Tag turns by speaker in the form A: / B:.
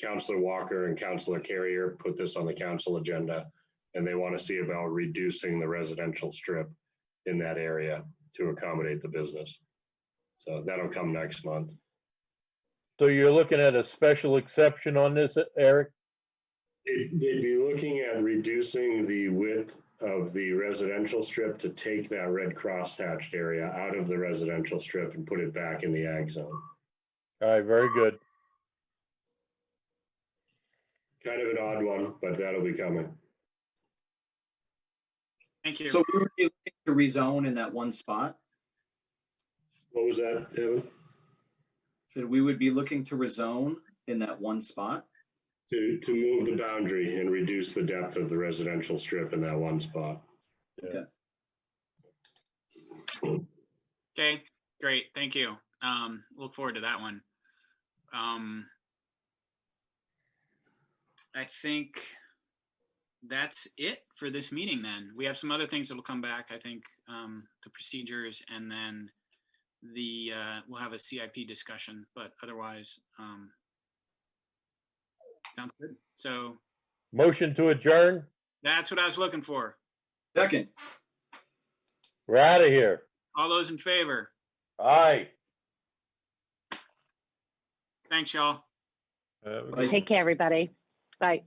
A: Counselor Walker and Counselor Carrier put this on the council agenda, and they want to see about reducing the residential strip in that area to accommodate the business. So that'll come next month.
B: So you're looking at a special exception on this, Eric?
A: It- They'd be looking at reducing the width of the residential strip to take that red cross hatched area out of the residential strip and put it back in the ag zone.
B: All right, very good.
A: Kind of an odd one, but that'll be coming.
C: Thank you.
D: So we would be looking to rezone in that one spot.
A: What was that, Evan?
D: So we would be looking to rezone in that one spot.
A: To, to move the boundary and reduce the depth of the residential strip in that one spot.
C: Okay, great. Thank you. Um, look forward to that one. Um, I think that's it for this meeting then. We have some other things that'll come back, I think, um, the procedures and then the, uh, we'll have a CIP discussion, but otherwise, um, sounds good. So
B: Motion to adjourn?
C: that's what I was looking for.
D: Second,
B: We're out of here.
C: All those in favor?
B: Aye.
C: Thanks, y'all.
D: Bye.
E: Take care, everybody. Bye.